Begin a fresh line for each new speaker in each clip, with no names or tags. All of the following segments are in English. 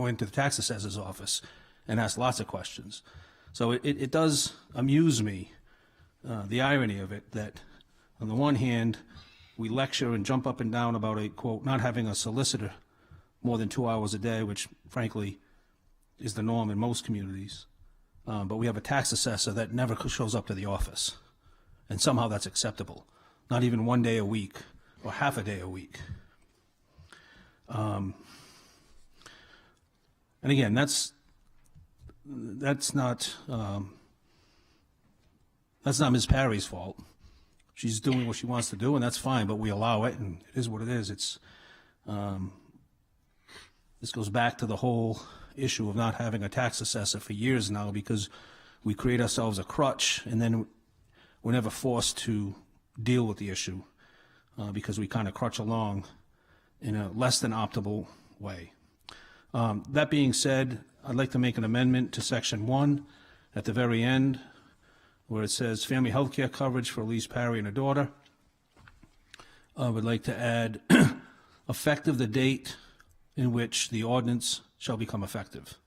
go into the tax assessor's office and ask lots of questions. So it, it it does amuse me, uh, the irony of it, that on the one hand, we lecture and jump up and down about a quote, not having a solicitor more than two hours a day, which frankly is the norm in most communities. Uh, but we have a tax assessor that never shows up to the office. And somehow that's acceptable, not even one day a week or half a day a week. And again, that's, that's not, um, that's not Ms. Parry's fault. She's doing what she wants to do, and that's fine, but we allow it, and it is what it is. It's, um, this goes back to the whole issue of not having a tax assessor for years now, because we create ourselves a crutch, and then we're never forced to deal with the issue, uh, because we kind of crutch along in a less than optimal way. Um, That being said, I'd like to make an amendment to Section 1 at the very end, where it says "Family health care coverage for Elise Parry and her daughter." I would like to add, "Effective the date in which the ordinance shall become effective."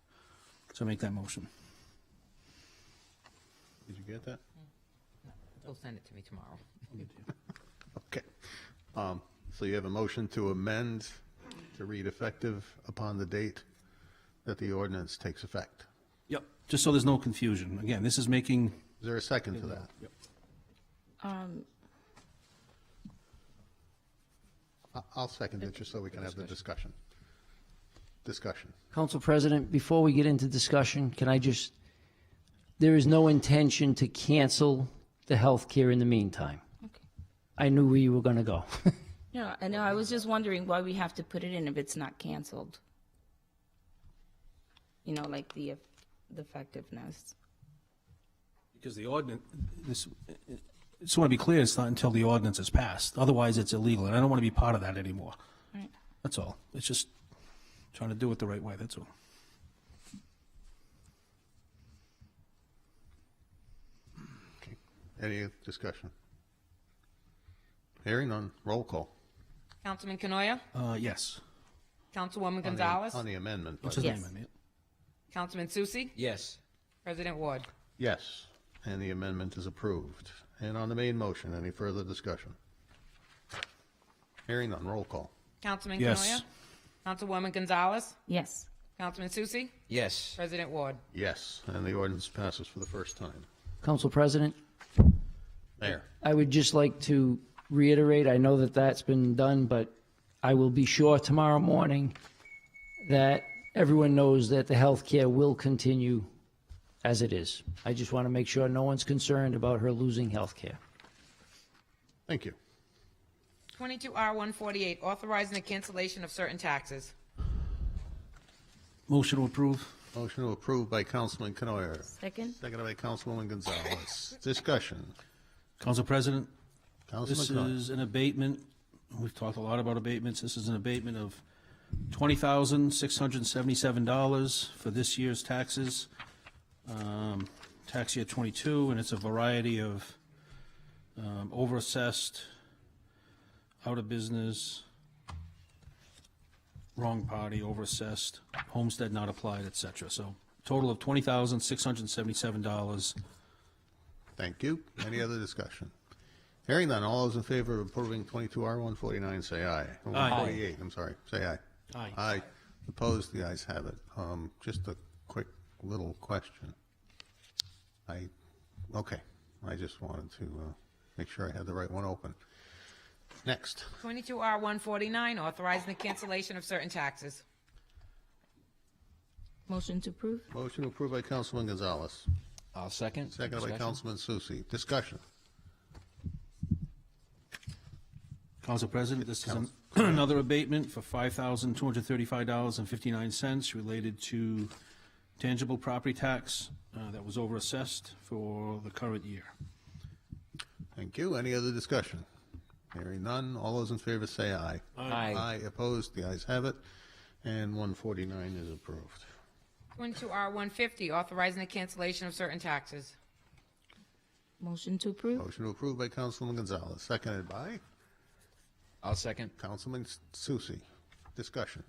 So make that motion.
Did you get that?
They'll send it to me tomorrow.
Okay. Um, So you have a motion to amend to read effective upon the date that the ordinance takes effect.
Yep. Just so there's no confusion. Again, this is making,
Is there a second to that? I- I'll second it just so we can have the discussion. Discussion.
Council President, before we get into discussion, can I just, there is no intention to cancel the health care in the meantime. I knew where you were going to go.
No, I know, I was just wondering why we have to put it in if it's not canceled. You know, like the, the effectiveness.
because the ordinance, this, I just want to be clear, it's not until the ordinance is passed. Otherwise, it's illegal, and I don't want to be part of that anymore.
Right.
That's all. It's just trying to do it the right way, that's all.
Okay. Any discussion? Hearing none, roll call.
Councilman Canoia?
Uh, yes.
Councilwoman
on the-
Gonzalez?
On the amendment.
What's
but-
his
Yes.
name, I mean?
Councilman Susie?
Yes.
President Ward?
Yes, and the amendment is approved. And on the main motion, any further discussion? Hearing none, roll call.
Councilman
Yes.
Canoia? Councilwoman Gonzalez?
Yes,
Councilman Susie?
Yes.
President Ward?
Yes, and the ordinance passes for the first time.
Council President,
Mayor,
I would just like to reiterate, I know that that's been done, but I will be sure tomorrow morning that everyone knows that the health care will continue as it is. I just want to make sure no one's concerned about her losing health care.
thank you.
Twenty-two R one forty-eight, authorizing the cancellation of certain taxes.
Motion to approve?
Motion to approve by Councilman Canoyer,
second?
seconded by Councilwoman Gonzalez. Discussion.
Council President,
Councilman
this
Canoyer.
is an abatement, we've talked a lot about abatements, this is an abatement of twenty thousand, six hundred and seventy-seven dollars for this year's taxes, um, tax year twenty-two, and it's a variety of, um, overassessed, out of business, wrong party, overassessed, homestead not applied, et cetera. So total of twenty thousand, six hundred and seventy-seven dollars.
Thank you. Any other discussion? Hearing none, all those in favor of approving 22R149, say aye. Or 148, I'm sorry, say aye.
Aye.
Aye. Opposed, the ayes have it. Um, Just a quick little question. I, okay, I just wanted to uh, make sure I had the right one open. Next,
Twenty-two R one forty-nine, authorizing the cancellation of certain taxes.
Motion to approve?
motion approved by Councilman Gonzalez,
I'll second.
seconded by
Discussion?
Councilman Susie. Discussion.
Council President, this is an- another abatement for $5,235.59 related to tangible property tax uh, that was overassessed for the current year.
Thank you. Any other discussion? Hearing none, all those in favor say aye.
Aye.
opposed, the ayes have it, and 149 is approved.
Twenty-two R one fifty, authorizing the cancellation of certain taxes.
Motion to approve?
Motion to approve by Councilman Gonzalez, seconded by
I'll second.
Councilman Susie. Discussion.